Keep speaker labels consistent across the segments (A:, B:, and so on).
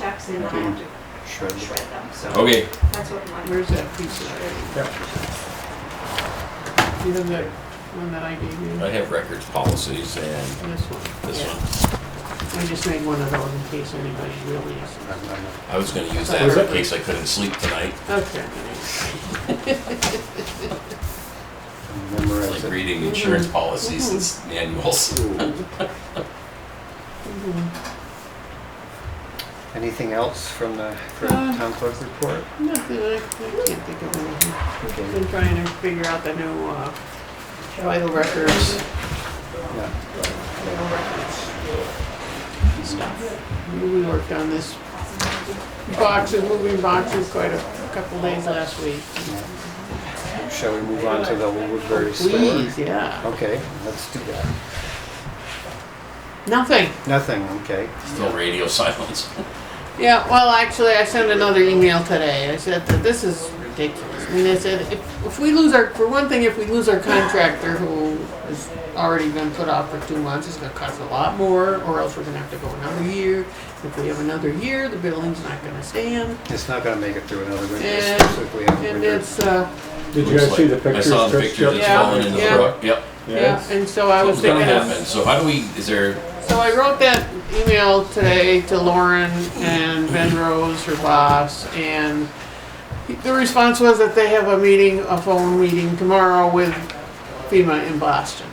A: rocks and then I have to
B: Shred it.
A: shred them, so.
C: Okay,
A: That's what my.
D: Where's that piece of it? You have that one that I gave you?
C: I have records, policies, and
D: This one.
C: this
A: Yeah.
C: one.
D: I just made one of those in case anybody really is.
B: I'm- I'm not-
C: I was gonna use
D: Was
C: that in
D: it?
C: case I couldn't sleep tonight,
D: Okay.
B: I'm
C: like
B: memorizing.
C: reading insurance
D: Mm-hmm.
C: policies and s- manuals.
B: Ooh.
D: Mhm.
B: Anything else from the, from
D: Uh.
B: town clerk report?
D: Nothing, I I can't think of anything. I've
B: Okay,
D: Been trying to figure out the new uh, vital records.
B: yeah.
D: vital records stuff. We worked on this boxes, moving boxes quite a couple days last week.
B: Shall we move on to the Woodbury Sewer?
D: Oh, Please, yeah.
B: Okay, let's do that.
D: Nothing.
B: Nothing, okay.
C: Still radio silence.
D: Yeah, well, actually, I sent another email today. I said that this is ridiculous. I mean, I said, if, if we lose our, for one thing, if we lose our contractor who has already been put off for two months, it's gonna cost a lot more, or else we're gonna have to go another year. If we have another year, the building's not gonna stand,
B: It's not gonna make it through another winter,
D: And-
B: specifically on
D: and
B: winter.
D: it's, uh,
E: Did you
C: Looks
E: guys see
C: like-
E: the pictures?
C: I saw the
E: Chris
C: pictures that's
E: Jeff-
D: Yeah,
C: falling in the
D: yeah.
C: brook, yep.
D: yeah, and so I was
C: Something's
D: thinking
C: gonna
D: of.
C: happen, so how do we, is there,
D: So I wrote that email today to Lauren and Ben Rose, her boss, and the response was that they have a meeting, a phone meeting tomorrow with FEMA in Boston.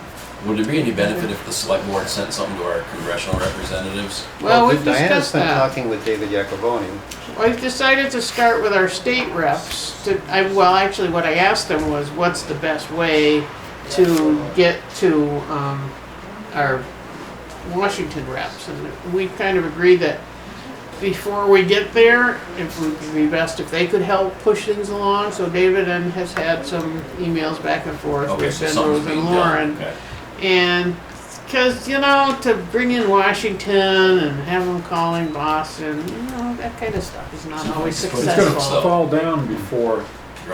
C: would there be any benefit if the select board sent something to our congressional representatives?
D: Well, we've
B: Diana's
D: discussed
B: been
D: that.
B: Oh, talking with David Yakoboni.
D: I've decided to start with our state reps to, I, well, actually, what I asked them was, what's the best way to get to, um, our Washington reps? And we kind of agreed that before we get there, it would be best if they could help push things along. So David and has had some emails back and forth
C: Okay,
D: with
C: so
D: Ben
C: something's
D: Rose
C: being
D: and
C: done.
D: Lauren.
C: Okay.
D: And, cause you know, to bring in Washington and have them calling Boston, you know, that kind of stuff is not always
C: It's gonna
E: It's gonna
C: So-
D: successful.
E: fall down before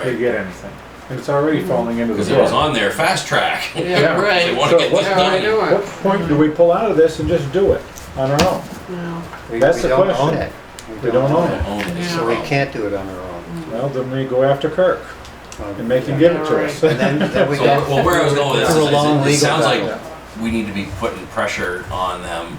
E: they
C: Right,
E: get anything. And It's already falling into the
C: because it was
E: brook.
C: on there, fast track.
D: Yeah,
C: They
D: right.
C: wanna
E: So
C: get
E: what-
C: this
D: How we
C: done.
E: What
D: doing?
E: point do we pull out of this and just do it on our own?
D: No.
B: We-
E: That's
B: we
E: the
B: don't own
E: question.
B: it.
E: We don't own it.
C: Own it, it's
D: Yeah.
B: So we
C: wrong.
B: can't do it on our
D: Mm.
B: own.
E: Well, then we go after Kirk
B: Um,
E: and make him
D: yeah.
E: give it to us.
B: And then, then we
C: So,
B: got.
C: well, where I was going with this
B: It's a
C: is, it-
B: long
C: it
B: legal
C: sounds like
B: battle.
C: we need to be putting pressure on them.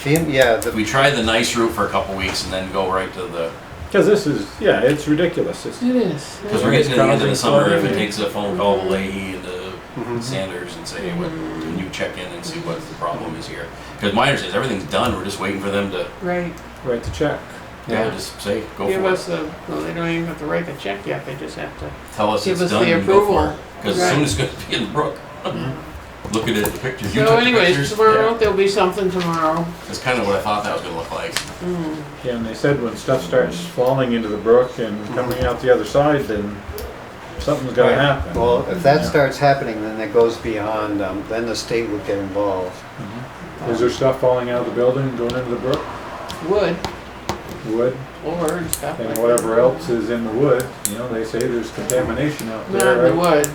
B: FEMA, yeah, the
C: We try the nice route for a couple weeks and then go right to the,
E: Because this is, yeah, it's ridiculous. It's-
D: It is.
C: because we're getting to the end of the summer, if it takes a phone call to Leahy and to
B: Mm-hmm.
C: Sanders and say, hey, what, can you check in and see what the problem is here? Because my understanding is everything's done, we're just waiting for them to,
D: Right.
E: Write the check.
C: you know,
D: Yeah.
C: just say, go
D: Give us
C: for it.
D: the, well, they don't even have to write the check yet, they just have to.
C: Tell us
D: give
C: it's
D: us the
C: done and go for it.
D: approval.
C: Because soon
D: Right.
C: it's gonna be in the brook.
B: Mm-hmm.
C: Looking at the pictures, you
D: So
C: took the
D: anyways,
C: pictures.
D: tomorrow, there'll be something tomorrow.
C: Yeah. That's kind of what I thought that was gonna look like.
E: Yeah, and they said when stuff starts falling into the brook and coming out the other side, then something's gonna happen.
B: Well, if that
E: Yeah.
B: starts happening, then it goes beyond, um, then the state would get involved.
E: Is there stuff falling out of the building, and going into the brook,
D: Wood,
E: wood,
D: floor and stuff like
E: and
D: that.
E: whatever else is in the wood? You know, they say there's contamination out
D: Not in
E: there.
D: the
E: right?
D: wood.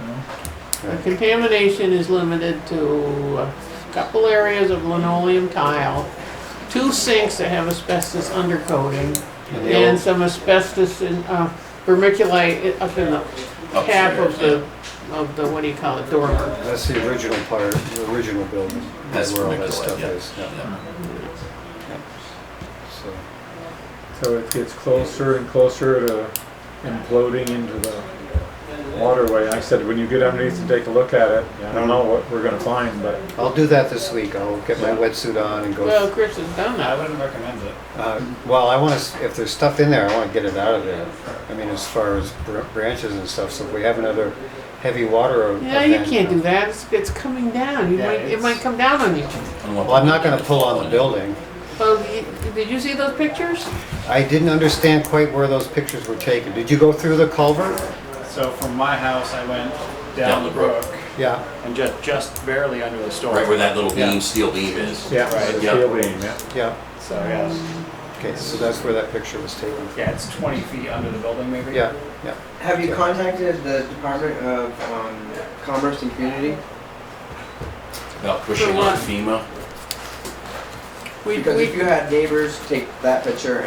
E: You know?
D: The contamination is limited to a couple areas of linoleum tile, two sinks that have asbestos undercoating,
B: And the
D: and
B: old-
D: some asbestos in, uh, vermiculite up in the cap of
C: Upstairs,
D: the, of the, what do you call it, dormer.
B: That's the original part, the original building.
C: That's
B: where all
C: where
B: that
C: Nicolai-
B: stuff
C: yeah,
B: is. yeah.
C: yeah.
B: So,
E: So it gets closer and closer to imploding into the waterway. I said, when you get underneath and take a look at it, I don't know what we're gonna find, but
B: I'll do that this week. I'll get my
E: Yeah.
B: wetsuit on and
D: Well,
B: go.
D: Chris has done
F: I
D: that.
F: wouldn't recommend it.
B: Uh, Well, I want to, if there's stuff in there, I want to get it out of there. I mean, as far as br- branches and stuff, so if we have another heavy water.
D: Yeah, you can't do that, it's, it's coming down, you
F: Yeah,
D: might, it
F: it's-
D: might come down on you.
C: I don't want
B: Well, I'm not
C: people
B: going to pull on the building.
D: Well, you- did you see those pictures?
B: I didn't understand quite where those pictures were taken. Did you go through the culvert?
F: So from my house, I went down,
C: Down the
F: the brook,
B: Yeah.
F: and just just barely under the store.
C: Right where that little
B: Yeah.
C: beam, steel beam is.
E: yeah,
F: Right,
E: the
C: yeah.
E: steel beam, yeah.
B: Yeah,
F: So yes,
B: okay, so that's where that picture was taken.
F: yeah, it's 20 feet under the building, maybe.
B: Yeah, yeah.
G: Have you contacted the Department of um, Commerce and Community?
C: About pushing
D: For
C: on
D: what?
C: FEMA.
D: We,
G: Because
D: we
G: if you had neighbors take that picture